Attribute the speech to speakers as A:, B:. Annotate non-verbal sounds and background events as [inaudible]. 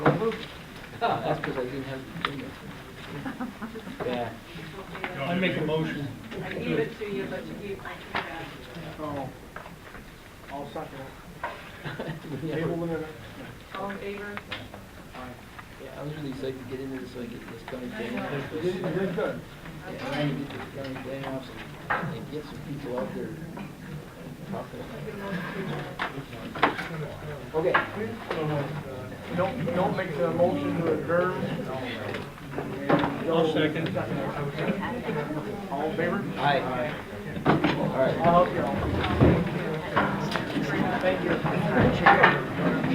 A: approved it. Oh, That's because I didn't have the agenda. [laughs] Yeah.
B: I make a motion.
C: I gave it to uh, you, but you gave my two back.
D: Oh, I'll second it.
A: Yeah,
D: Table limit.
C: All in favor?
A: I was really excited to get into this, so I get this county plan off.
D: You did, you did good.
A: Yeah, I need to get this county plan off and- and get some people out there talking about it. Okay.
D: Don't, don't make the motion to adjourn.
B: I'll second.
D: All in favor?
A: Aye. All right.
D: I'll help you out. Thank you.